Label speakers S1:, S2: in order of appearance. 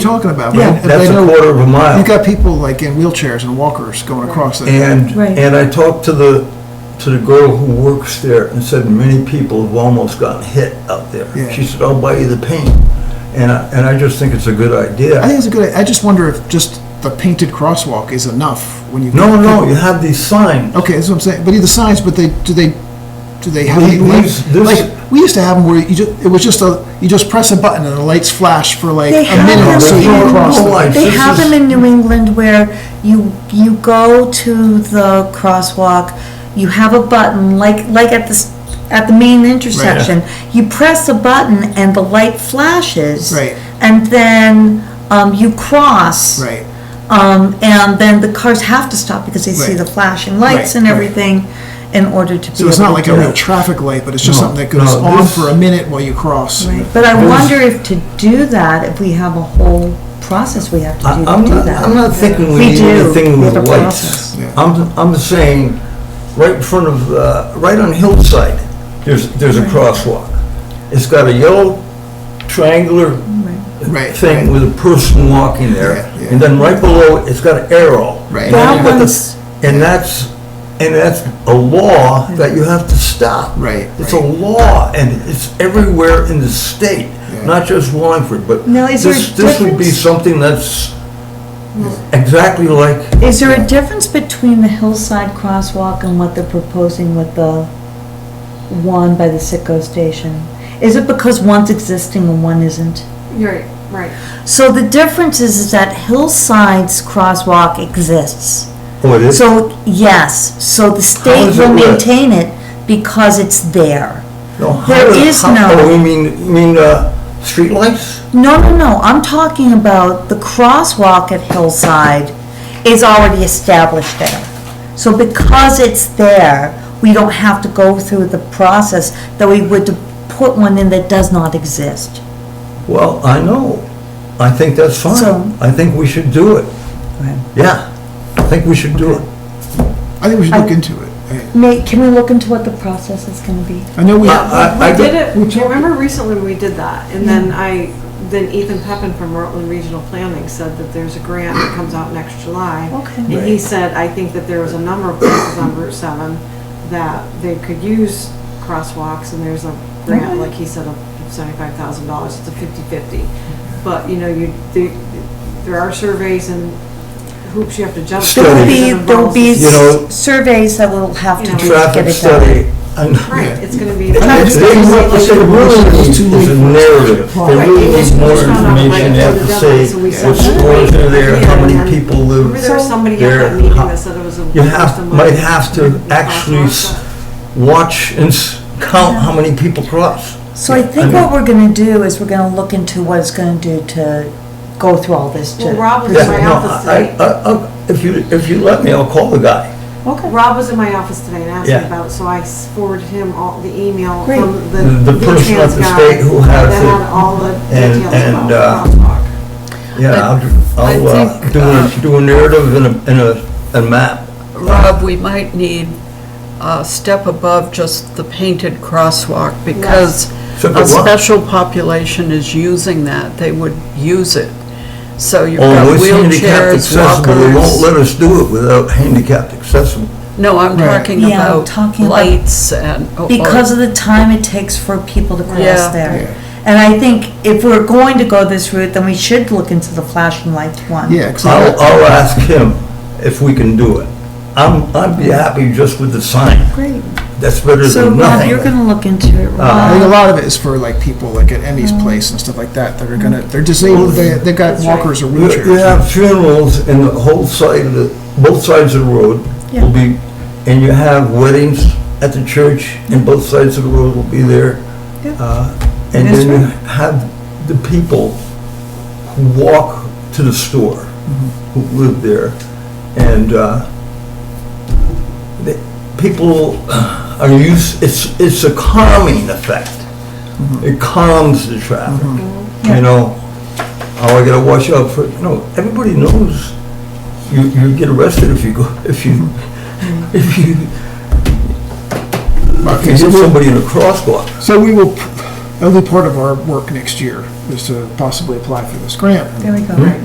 S1: talking about.
S2: Yeah,
S1: right? If
S2: that's
S1: they
S2: a
S1: know-
S2: quarter of a mile.
S1: You've got people like in wheelchairs and walkers going across that.
S2: And,
S3: Right.
S2: and I talked to the, to the girl who works there and said, many people have almost gotten hit out there.
S1: Yeah.
S2: She said, I'll buy you the paint. And I, and I just think it's a good
S1: I think
S2: idea.
S1: it's a good, I just wonder if just the painted crosswalk is enough when you.
S2: No, no, you have these signs.
S3: Oh,
S1: Okay, that's what I'm saying, but either signs, but they, do they, do they have? any
S2: These-
S1: light-
S2: this-
S1: Like, we used to have them where you just, it was just a, you just press a button and the lights flash for like
S3: They
S1: a
S3: have
S1: minute or so you
S2: don't
S1: cross.
S2: know
S1: the-
S2: why.
S3: them, they
S2: This
S3: have
S2: is-
S3: them in New England where you, you go to the crosswalk, you have a button, like, like at the, s- at the main intersection. You press a button and the light flashes.
S1: Right.
S3: And then, um, you cross.
S1: Right,
S3: Um, and then the cars have to stop because they see
S1: Right.
S3: the flashing
S1: Right,
S3: lights and
S1: right.
S3: everything in order to be able to
S1: so it's not like a
S3: do
S1: real
S3: it.
S1: traffic light, but it's just
S2: No,
S1: something that goes
S2: no,
S1: on
S2: this-
S1: for a minute while you cross.
S3: Right, But I wonder if to do that, if we have a whole process we have to
S2: I-
S3: do
S2: I'm
S3: to do
S2: not,
S3: that.
S2: I'm not thinking
S3: We
S2: we need
S3: do.
S2: anything
S3: We
S2: with
S3: have a
S2: lights.
S3: process.
S1: Yeah.
S2: I'm, I'm saying, right in front of, uh, right on Hillside, there's, there's a crosswalk. It's got a yellow triangular
S1: Right,
S2: thing
S1: right.
S2: with a person walking there.
S1: Yeah, yeah.
S2: And then right below, it, it's got an arrow.
S1: Right.
S2: And then you've got the-
S3: That one's-
S2: And that's, and that's a law that you have to stop.
S1: Right,
S2: It's a
S1: right.
S2: law, and it's everywhere in the state,
S1: Yeah.
S2: not just Wallingford, but
S3: Now, is there a
S2: this, this would be
S3: difference?
S2: something that's exactly like
S3: Is there a difference between the hillside crosswalk and what they're proposing with the one by the Sitco station? Is it because one's existing and one isn't?
S4: You're right.
S3: So the difference is is that hillside's crosswalk exists.
S2: what is.
S3: So, yes, so the state
S2: is
S3: will
S2: it lit?
S3: maintain it because it's there.
S2: No, how
S3: there
S2: do-
S3: is
S2: how-
S3: no-
S2: Oh, you mean, you mean, uh, streetlights?
S3: No, no, no, I'm talking about the crosswalk at Hillside is already established there. So because it's there, we don't have to go through the process that we would to put one in that does not exist.
S2: Well, I know. I think that's
S3: So-
S2: fine. I think we should do it. Yeah, I think we should do it.
S1: I think we should look
S3: I-
S1: into it. I-
S3: May, can we look into what the process is gonna be?
S1: Uh, I know we,
S2: I- I- I
S4: We did
S2: don't-
S4: it, I remember recently we did that, and then I, then Ethan Peppin from Rutland Regional Planning said that there's a grant that comes out next July.
S3: Okay.
S4: And he said, I think that there was a number of places on Route seven that they could use crosswalks, and there's a grant, like he said, of seventy-five thousand dollars, it's a fifty-fifty. But, you know, you, there, there are surveys and hoops you have to jump. through.
S3: There will be,
S4: It
S3: there will be
S4: involves-
S2: You know-
S3: s- surveys that we'll have to
S4: You know,
S3: do to get
S2: Traffic
S3: it done.
S2: study. and-
S4: Right, it's gonna be.
S2: They
S1: Traffic study.
S2: want to say really needs is a narrative. They really need more information. They have to say what stores are there, how many people
S4: Remember
S2: live.
S4: there was somebody at
S2: there,
S4: that meeting
S2: how-
S4: that said it was a.
S2: You have, might have to actually s-
S4: Crosswalk.
S2: watch and s- count how many people cross.
S3: So I think what we're gonna do is we're gonna look into what it's gonna do to go through all this to.
S4: Well, Rob was
S2: Yeah,
S4: in my
S2: no,
S4: office
S2: I-
S4: today,
S2: I- I- If you, if you let me, I'll call the guy.
S3: Okay.
S4: Rob was in my office today and asked me
S2: Yeah.
S4: about, it, so I s- forwarded him all the email
S3: Great.
S4: from
S2: The-
S4: the.
S2: the person at
S4: VTrans
S2: the
S4: guy
S2: state who has
S4: That
S2: it.
S4: had all the
S2: And-
S4: details
S2: and,
S4: about the
S2: uh,
S4: crosswalk.
S2: Yeah, I'll,
S5: I
S2: I'll uh,
S5: think,
S2: do
S5: uh,
S2: a, do a narrative and a, and a, a map.
S5: Rob, we might need a step above just the painted crosswalk because
S2: Step
S5: a
S2: above?
S5: special population is using that. They would use it. So you've got
S2: Oh, it's handicapped
S5: wheelchairs,
S2: accessible, they won't
S5: walkers.
S2: let us do it without handicapped accessible.
S5: No, I'm
S1: Right.
S5: talking
S3: Yeah, I'm
S5: about
S3: talking about-
S5: lights and. oh,
S1: Oh,
S5: or-
S3: Because of the time it takes for people to
S5: Yeah.
S3: cross there. And I think if we're going to go this route, then we should look into the flashing lights one.
S1: yeah, 'cause I-
S2: I'll, I'll ask him if we can do it. I'm, I'd be happy just with the sign.
S3: Great.
S2: That's better
S3: So
S2: than
S3: Rob, you're
S2: nothing.
S3: gonna look into it,
S1: Uh, I
S4: Uh,
S1: think a
S3: Rob.
S1: lot of it is for like people like at Emmy's place and stuff like that that are gonna, they're disabled, they, they've got
S4: Mm. That's right.
S1: walkers or
S2: You you
S1: wheelchairs.
S2: have funerals and the whole side of the, both sides of the road will be, and you have weddings at the church and both sides of the road will be there. Uh, And
S3: That's
S2: then you
S3: right.
S2: have the people who walk to the store,
S3: Mm-hmm.
S2: who live there. And uh, the- people uh, are used, it's, it's a calming effect.
S3: Mm-hmm.
S2: It calms the traffic,
S3: Yeah.
S2: you know? Oh, I gotta watch out for, no, everybody knows you, you get arrested if you go, if you,
S3: Mm-hmm.
S2: if you, if you
S1: Okay, so
S2: hit
S1: we'll-
S2: somebody in a crosswalk.
S1: So we will, That'll be part of our work next year, is to possibly apply for this grant. Hmm?
S3: There we go.